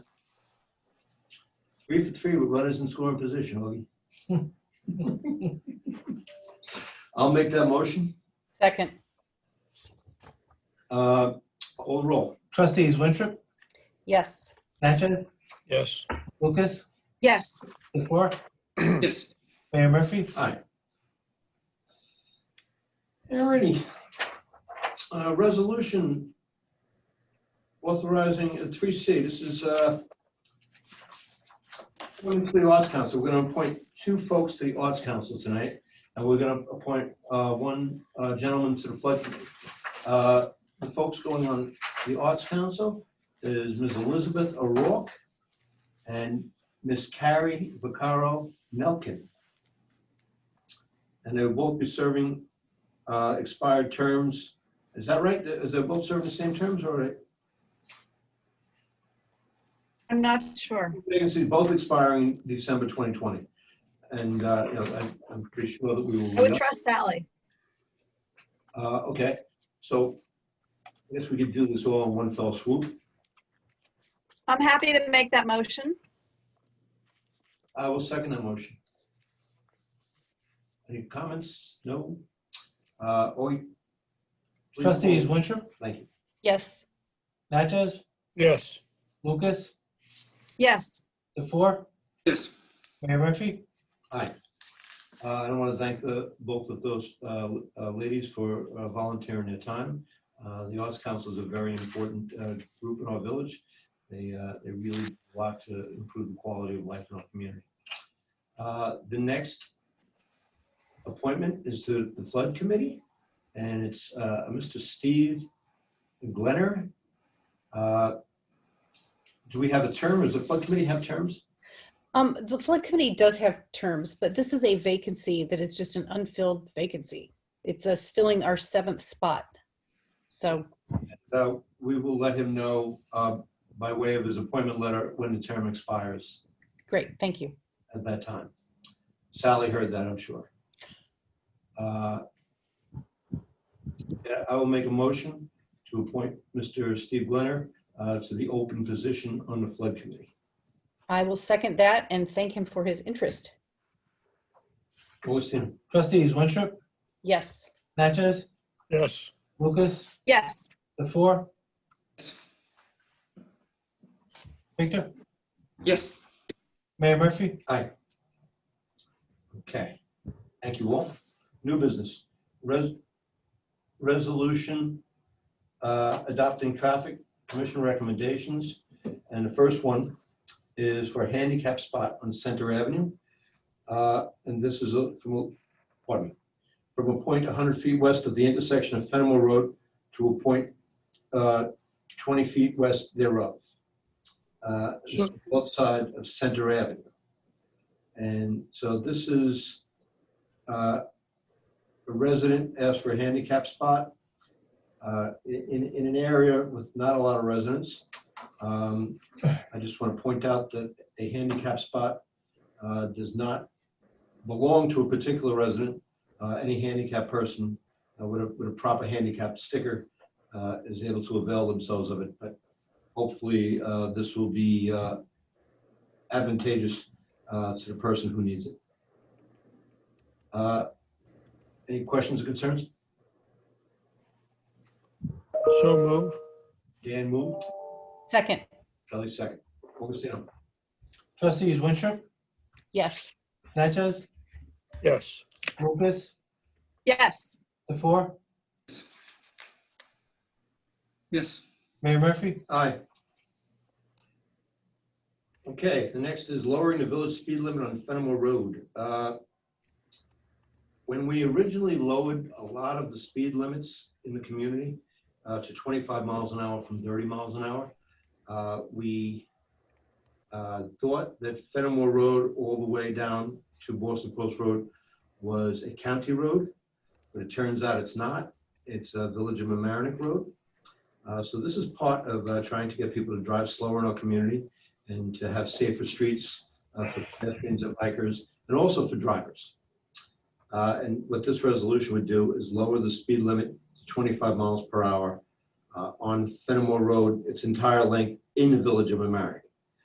Three for three with runners in scoring position, Augie. I'll make that motion. Second, Uh, Call the roll. Trustees Winthrop, yes. Natchez, yes, Lucas, yes, the floor, yes, Uh, Mayor Murphy. Aye. Alrighty. Uh, Resolution authorizing three C, this is uh, Women for the Arts Council, we're gonna appoint two folks to the Arts Council tonight, and we're gonna appoint uh, one uh, gentleman to the flood. Committee. Uh, The folks going on the Arts Council is Ms. Elizabeth O'Rourke and Ms. Carrie Vaccaro Nelkin and they will both be serving uh, expired terms. Is that right? Is they both serving the same terms or I'm not sure. vacancies both expiring December 2020? And, uh, you know, I- I'm pretty sure that we I would will, trust Sally. Uh, okay, so I guess we could do this all in one fell swoop. I'm happy to make that motion. I will second that motion. Any comments? No? Uh, Oi? please- Trustees Winthrop, Thank you. Yes, Natchez, yes, Lucas, Yes, the four, yes. Mayor Murphy. Hi. Uh, I want to thank the, both of those uh, uh, ladies for uh, volunteering their time. Uh, The Arts Council is a very important uh, group in our village. They, uh, they really do a lot to improve the quality of life in our community. Uh, The next appointment is to the Flood Committee, and it's uh, Mr. Steve Glenner. Uh, Do we have a term? Does the Flood Committee have terms? um, the flood committee does have terms, but this is a vacancy that is just an unfilled vacancy. It's us filling our seventh spot. So, Uh, We will let him know uh, by way of his appointment letter when the term expires great, thank you. at that time. Sally heard that, I'm sure. Uh, yeah, I will make a motion to appoint Mr. Steve Glenner uh, to the open position on the flood committee. I will second that and thank him for his interest. Augustino? Trustees Winthrop, Yes, Natchez, yes, Lucas, yes, the four, Yes. Victor, Yes. Mayor Murphy. Okay. Thank you all. New business. Res- Resolution uh, adopting traffic commission recommendations. And the first one is for a handicap spot on Center Avenue. Uh, And this is a- from, a- pardon me, from a point 100 feet west of the intersection of Fenimore Road to a point uh, 20 feet west thereof. Uh, Sure. Left side of Center Avenue. And so this is, uh, a resident asked for a handicap spot, uh, in, in an area with not a lot of residents. Um, I just want to point out that a handicap spot, uh, does not belong to a particular resident. Uh, any handicap person uh, with a, with a proper handicap sticker, uh, is able to avail themselves of it, but hopefully, uh, this will be, uh, advantageous uh, to the person who needs it. Uh, Any questions or concerns? so move, Dan moved, second, Kelly second. Augustino? Trustees Winthrop, yes, Natchez, yes, Lucas, yes, the four, Yes. Mayor Murphy. Aye. Okay, the next is lowering the village speed limit on Fenimore Road. Uh, When we originally lowered a lot of the speed limits in the community uh, to 25 miles an hour from 30 miles an hour, uh, we uh, thought that Fenimore Road all the way down to Boston Post Road was a county road, but it turns out it's not. It's a Village of Amerenik Road. Uh, So this is part of uh, trying to get people to drive slower in our community and to have safer streets uh, for pedestrians and bikers, and also for drivers. Uh, And what this resolution would do is lower the speed limit to 25 miles per hour uh, on Fenimore Road, its entire length in the village of Amerenik.